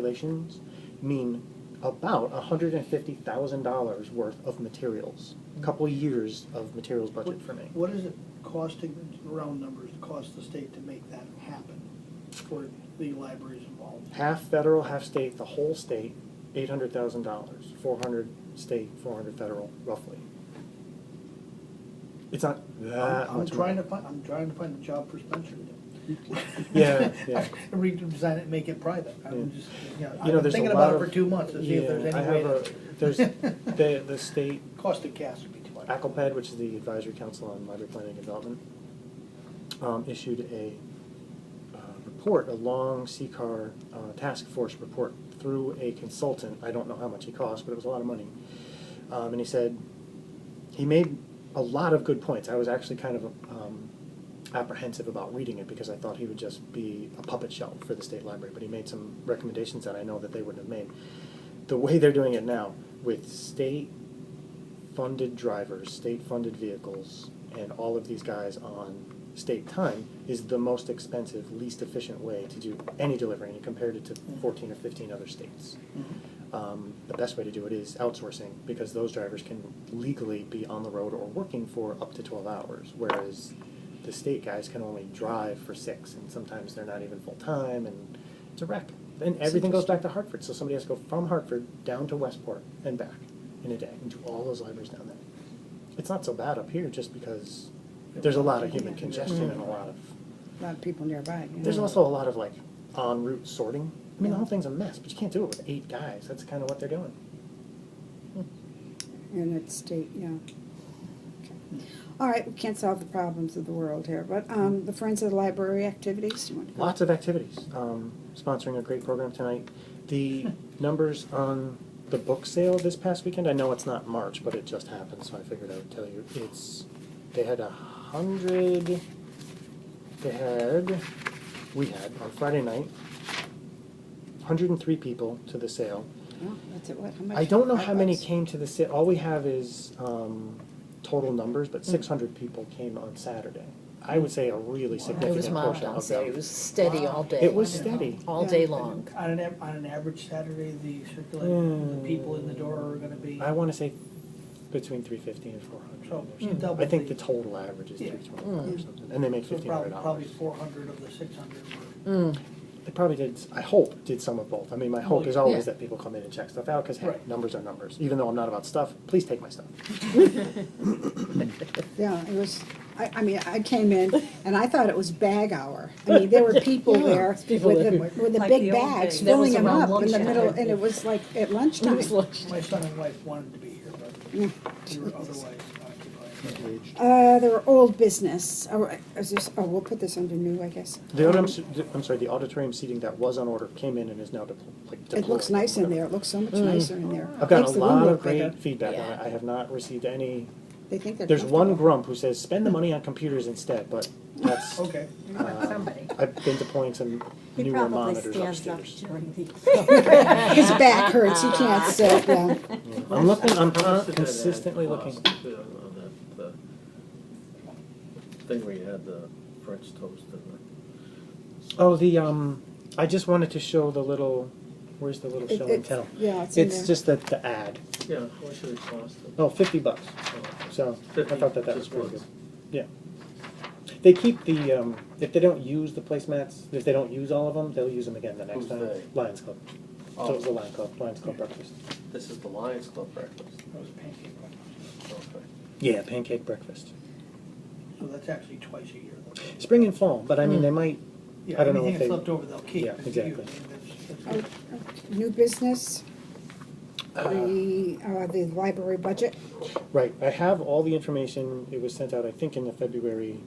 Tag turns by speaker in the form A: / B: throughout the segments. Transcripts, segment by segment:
A: circulations mean about hundred and fifty thousand dollars worth of materials. A Couple years of materials budget for me.
B: What is it costing, round numbers, to cost the state to make that happen for the libraries involved?
A: Half federal, half state, the whole state, eight hundred thousand dollars, four hundred state, four hundred federal, roughly. It's not that
B: I'm
A: much
B: trying
A: money.
B: to find, I'm trying to find a job for Spencer. to do.
A: Yeah, yeah.
B: Redesign it, and make it private. I'm
A: Yeah.
B: just, you know,
A: You know,
B: I've been
A: there's a
B: thinking
A: lot
B: about it
A: of-
B: for two months to see if there's
A: Yeah, I
B: any way
A: have a-
B: to.
A: There's, the, the state
B: Cost of gas would be too much.
A: ACLPAD, which is the Advisory Council on Library Planning and Development, um, issued a uh, report, a long CCAR uh, task force report through a consultant. I don't know how much he cost, but it was a lot of money. Um, and he said, he made a lot of good points. I was actually kind of um, apprehensive about reading it because I thought he would just be a puppet show for the state library, but he made some recommendations that I know that they wouldn't have made. The way they're doing it now with state funded drivers, state funded vehicles, and all of these guys on state time is the most expensive, least efficient way to do any delivery, and he compared it to fourteen or fifteen other states.
B: Mm-hmm.
A: Um, the best way to do it is outsourcing, because those drivers can legally be on the road or working for up to twelve hours, whereas the state guys can only drive for six, and sometimes they're not even full-time, and it's a wreck. And everything goes back to Hartford, so somebody has to go from Hartford down to Westport and back in a day, and do all those libraries down there. It's not so bad up here, just because there's a lot of human congestion and a lot of,
C: a lot of people nearby. you
A: there's
C: know.
A: also a lot of like en route sorting. I mean, the whole thing's a mess, but you can't do it with eight guys, that's kind of what they're doing.
C: And it's state, yeah. Okay. All right, we can't solve the problems of the world here, but um, the Friends of the Library activities, you want to go?
A: Lots of activities. Um, sponsoring a great program tonight. The numbers on the book sale this past weekend, I know it's not March, but it just happened, so I figured I would tell you. It's, they had a hundred, they had, we had on Friday night, 103 people to the sale.
C: Oh, that's it, what, how much?
A: I don't know how many
C: Outlets?
A: came to the sale. All we have is um, total numbers,
D: Mm.
A: but 600 people came on Saturday. I would say a really
D: It
A: significant
D: was mild,
A: portion
D: I'll
A: of
D: say,
A: them.
D: it was steady all day.
A: It was steady.
D: All
C: Yeah.
D: day long.
B: On an, av- on an average Saturday, the circulating, the people in the door are gonna be.
A: Hmm. I want to say between three fifty and four
C: Oh,
A: hundred.
B: So, double
A: I think the
B: the-
A: total average is
B: Yeah.
A: three twenty-five
C: Mm.
A: or something, and they make
B: So
A: fifteen
B: probably,
A: hundred
B: probably
A: dollars.
B: four hundred of the six hundred were.
D: Mm.
A: They probably did, I hope, did some of both. I mean, my hope
B: Well,
A: is always
D: yeah.
A: that people come in and check stuff out, because hey,
B: Right.
A: numbers are numbers. Even though I'm not about stuff, please take my stuff.
C: Yeah, it was, I, I mean, I came in and I thought it was bag hour. I mean, there were people there with the,
D: people there.
C: with the
E: Like the
C: big
E: old
C: bags,
E: days.
D: That was
C: filling them
D: around
C: up in the
D: lunchtime.
C: middle, and it was like at lunchtime.
B: My son and wife wanted to be here, but
C: Yeah.
B: we were otherwise occupied.
C: Uh, there were old business, oh, is this, oh, we'll put this under new, I guess.
A: The auditorium, I'm sorry, the auditorium seating that was on order came in and is now depl- like deployed.
C: It looks nice in there, it looks so much nicer in there.
A: Mm. I've gotten a
C: Makes the room
A: lot of
C: look bigger.
A: great feedback on it. I have not received any,
C: They think they're
A: there's one
C: comfortable.
A: grump who says, spend the money on computers instead, but
C: Oh,
A: that's,
B: Okay.
A: um, I've been deploying some
E: He
A: newer
E: probably
A: monitors upstairs.
E: stands up during the.
C: His back hurts, he can't sit, yeah.
A: I'm looking, I'm
F: How much did that
A: consistently
F: add
A: looking.
F: cost, uh, on that, uh, Thing where you had the French toast and the.
A: Oh, the, um, I just wanted to show the little, where's the little
C: It-
A: show and
C: it's-
A: tell?
C: Yeah, it's in there.
A: It's just the, the ad.
F: Yeah, what should it cost? them?
A: Oh, fifty bucks,
F: Oh,
A: so I
F: 50
A: thought that that was
F: just
A: pretty good.
F: once.
A: Yeah. They keep the, um, if they don't use the placemats, if they don't use all of them, they'll use them again the next
F: Who's
A: time.
F: they?
A: Lions Club. So it was the
F: Oh.
A: Lions Club, Lions Club breakfast.
F: This is the Lions Club breakfast.
B: That was pancake breakfast.
F: Okay.
A: Yeah, pancake breakfast.
B: So that's actually twice a year. though.
A: Spring and fall, but
C: Hmm.
A: I mean, they might,
B: Yeah,
A: I don't know if
B: anything
A: they-
B: that's left over, they'll keep.
A: Yeah,
B: and use.
A: exactly.
B: That's-
C: Oh,
B: that's-
C: oh, New business,
A: Uh-huh.
C: the, uh, the library budget.
A: Right, I have all the information, it was sent out, I think, in the February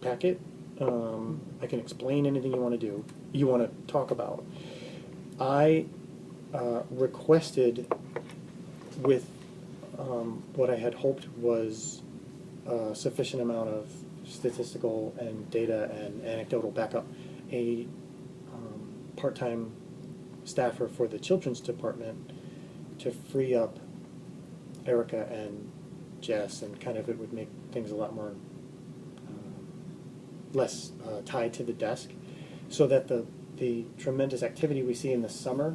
A: packet. Um, I can explain anything you wanna do, you wanna talk about. I, uh, requested with, um, what I had hoped was a sufficient amount of statistical and data and anecdotal backup, a, um, part-time staffer for the children's department to free up Erica and Jess, and kind of it would make things a lot more uh, um, less uh, tied to the desk, so that the the tremendous activity we see in the summer